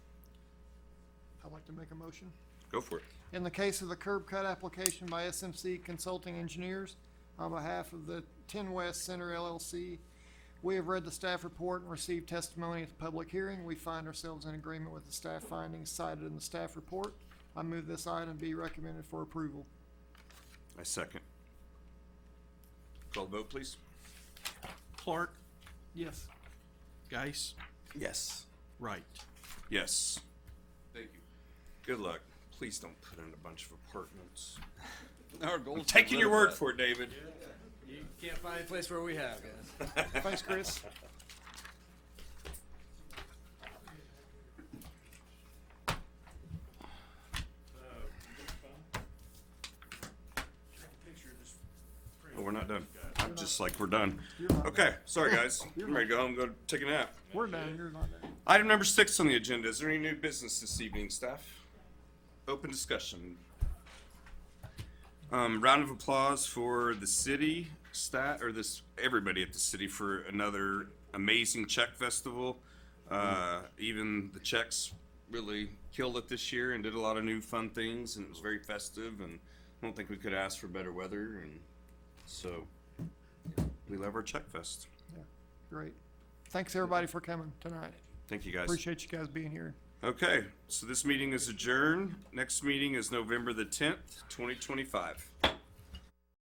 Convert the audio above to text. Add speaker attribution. Speaker 1: like to make a motion?
Speaker 2: Go for it.
Speaker 1: In the case of the curb cut application by SMC Consulting Engineers, on behalf of the Ten West Center LLC, we have read the staff report and received testimony at the public hearing. We find ourselves in agreement with the staff findings cited in the staff report. I move this item be recommended for approval.
Speaker 2: I second. Call the vote, please.
Speaker 3: Clark,
Speaker 1: Yes.
Speaker 3: Geis,
Speaker 4: Yes.
Speaker 3: Wright.
Speaker 2: Yes. Thank you. Good luck. Please don't put in a bunch of apartments.
Speaker 4: Our goal.
Speaker 2: I'm taking your word for it, David.
Speaker 4: You can't find any place where we have, guys.
Speaker 1: Thanks, Chris.
Speaker 2: Oh, we're not done. I'm just like, we're done.
Speaker 1: You're not.
Speaker 2: Okay, sorry, guys. I'm ready to go home, go take a nap.
Speaker 1: We're done, you're not done.
Speaker 2: Item number six on the agenda. Is there any new business this evening, staff? Open discussion. Um, round of applause for the city stat, or this, everybody at the city for another amazing Czech festival. Uh, even the Czechs really killed it this year and did a lot of new fun things and it was very festive and I don't think we could ask for better weather and so we love our Czech Fest.
Speaker 1: Great. Thanks, everybody, for coming tonight.
Speaker 2: Thank you guys.
Speaker 1: Appreciate you guys being here.
Speaker 2: Okay, so this meeting is adjourned. Next meeting is November the tenth, twenty twenty-five.